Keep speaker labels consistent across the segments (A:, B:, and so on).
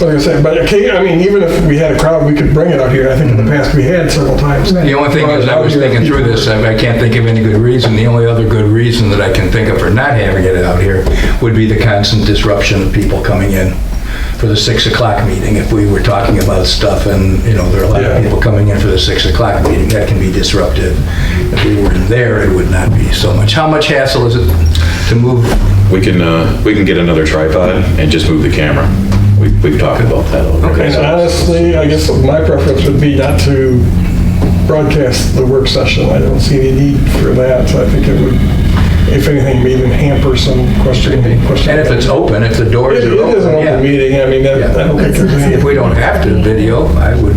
A: Like I said, but occa- I mean, even if we had a crowd, we could bring it up here. I think in the past we had several times.
B: The only thing is, I was thinking through this, I I can't think of any good reason. The only other good reason that I can think of for not having it out here would be the constant disruption of people coming in for the 6 o'clock meeting. If we were talking about stuff and, you know, there are a lot
A: Yeah.
B: of people coming in for the 6 o'clock meeting, that can be disruptive. If we were there, it would not be so much. How much hassle is it to move?
C: We can, uh, we can get another tripod and just move the camera. We, we've talked about that a little bit.
A: And honestly, I guess my preference would be not to broadcast the work session. I don't see any need for that. I think it would, if anything, maybe hamper some question.
B: And if it's open, if the doors
A: It
B: are
A: it is an
B: open,
A: open
B: yeah.
A: meeting. I mean, that- I don't think there's any,
B: If we don't have to video, I would.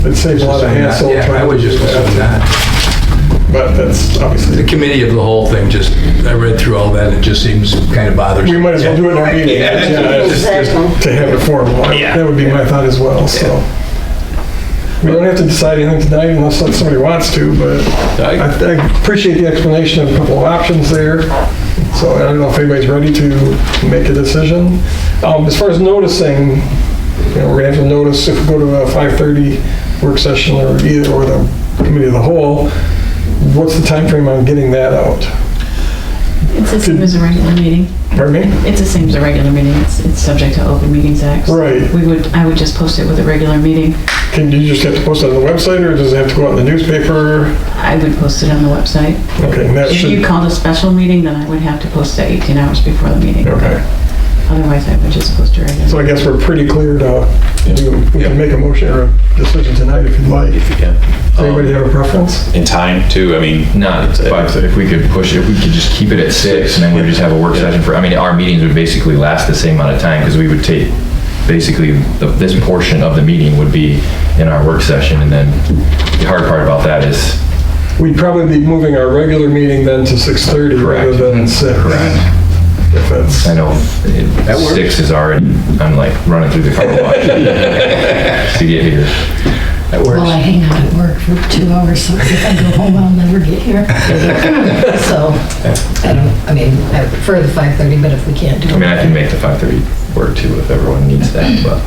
A: it'd save a lot of hassle.
B: Yeah, I
A: trying
B: would
A: to
B: just
A: do that.
B: assume that.
A: But that's
B: The
A: obviously,
B: committee of the whole thing, just, I read through all that, and it just seems kind of bothersome.
A: we might as well do it in our meeting.
B: Yeah.
A: Yeah, it's-
D: Exactly.
A: to have it formal. I- That would be my thought as well, so. We don't have to decide anything tonight unless somebody wants to, but I
C: I-
A: I appreciate the explanation of a couple of options there. So I don't know if anybody's ready to make a decision. Um, As far as noticing, you know, we're gonna have to notice if we go to a 5:30 work session or either, or the committee of the whole, what's the time frame on getting that out?
E: It's the same as a regular meeting.
A: Pardon me?
E: It's the same as a regular meeting. It's, it's subject to Open Meetings Act.
A: Right.
E: We would, I would just post it with a regular meeting.
A: Can you just have to post it on the website or does it have to go out in the newspaper?
E: I would post it on the website.
A: Okay, and that
E: If you
A: should,
E: called a special meeting, then I would have to post it 18 hours before the meeting.
A: okay.
E: Otherwise, I would just post it
A: So
E: regular.
A: I guess we're pretty clear to, do- we can make a motion or a decision tonight if you'd like.
C: If you can.
A: Anybody
C: Um,
A: have a preference?
C: In time too, I mean,
F: No, it's
C: Five.
F: five. So if we could push, if we could just keep it at six, and then we would just have a work
C: Yeah.
F: session for. I mean, our meetings would basically last the same amount of time because we would take basically the, this portion of the meeting would be in our work session, and then the hard part about that is
A: We'd probably be moving our regular meeting then to 6:30 rather
F: Correct.
A: than 6. If that's,
F: I know it,
B: That works.
F: six is already. I'm like running through the car wash to get here.
B: That
D: Well, I
B: works.
D: hang out at work for two hours, so if I go home, I'll never get here. So, I don't, I mean, I prefer the 5:30, but if we can't do
F: I mean,
D: it.
F: I can make the five thirty work too if everyone needs that, but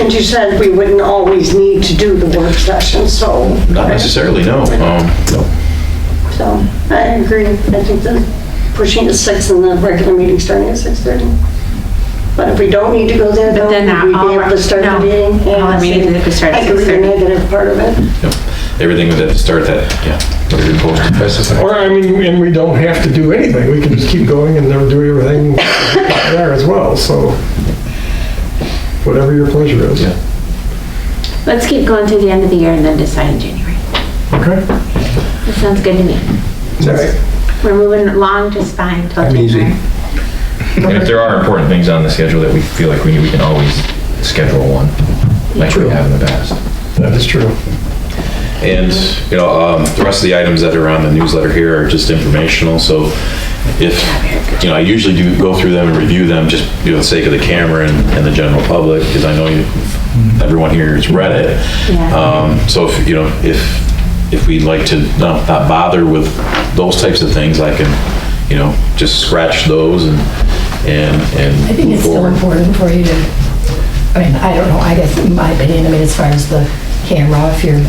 G: And you said we wouldn't always need to do the work session, so.
C: not necessarily, no. Um,
G: So, I agree. I think that pushing to six and the regular meeting starting at six thirty. But if we don't need to go there, though,
H: But then
G: we'd
H: all
G: be able
H: our-
G: to start the
H: no,
G: meeting.
H: all our
G: Yeah,
H: meetings
G: so
H: if we start
G: I
H: at
G: agree with the
H: 6:30.
G: negative part of it.
C: Everything would have to start that, yeah. Whatever you post.
B: Specify.
A: or I mean, and we don't have to do anything. We can just keep going and then do everything there as well, so whatever your pleasure is.
C: Yeah.
H: Let's keep going through the end of the year and then decide in January.
A: Okay?
H: That sounds good to me. We're moving along just fine till
B: I'm easy.
H: January.
F: and if there are important things on the schedule that we feel like we we can always schedule one like we have in the past.
A: That is true.
C: And, you know, um, the rest of the items that are on the newsletter here are just informational, so if, you know, I usually do go through them and review them, just, you know, the sake of the camera and, and the general public, because I know you, everyone here has read it.
H: Yeah.
C: Um, so if, you know, if, if we'd like to not, not bother with those types of things, I can, you know, just scratch those and, and, and.
D: I think
C: move
D: it's still
C: forward.
D: important for you to, I mean, I don't know, I guess in my opinion, I mean, as far as the camera, if you're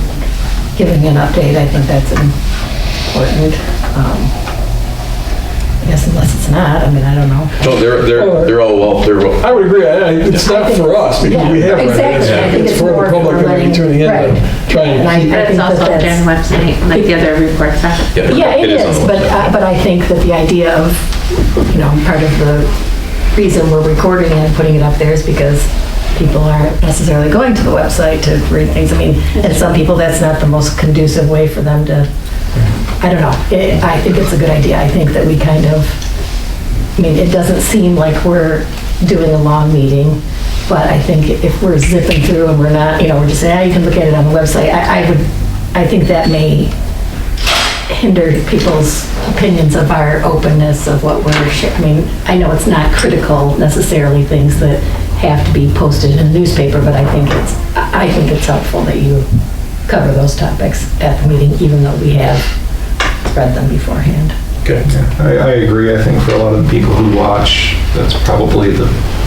D: giving an update, I think that's important. Um, I guess unless it's not, I mean, I don't know.
C: No, they're, they're, they're all, well, they're, well-
A: I would agree. I- I- It's not for us because we have.
D: Yeah,
A: it.
D: exactly. I think
A: It's
D: it's
A: for
D: more
A: the
D: for
A: public that may
D: letting-
A: be tuning in
D: right.
A: to try and
D: And I- I
H: But
D: think
H: it's
D: that
H: also on
D: that's-
H: Jen website, like the other reports are.
C: yeah.
D: Yeah, it
C: on
D: is,
C: the
D: but,
C: website.
D: uh, but I think that the idea of, you know, part of the reason we're recording and putting it up there is because people aren't necessarily going to the website to read things. I mean, and some people, that's not the most conducive way for them to, I don't know. It- I think it's a good idea. I think that we kind of, I mean, it doesn't seem like we're doing a long meeting, but I think if we're zipping through and we're not, you know, we're just saying, ah, you can look at it on the website, I, I would, I think that may hinder people's opinions of our openness of what we're, sha- I mean, I know it's not critical necessarily things that have to be posted in a newspaper, but I think it's, I I think it's helpful that you cover those topics at the meeting, even though we have read them beforehand.
I: I, I agree. I think for a lot of the people who watch, that's probably the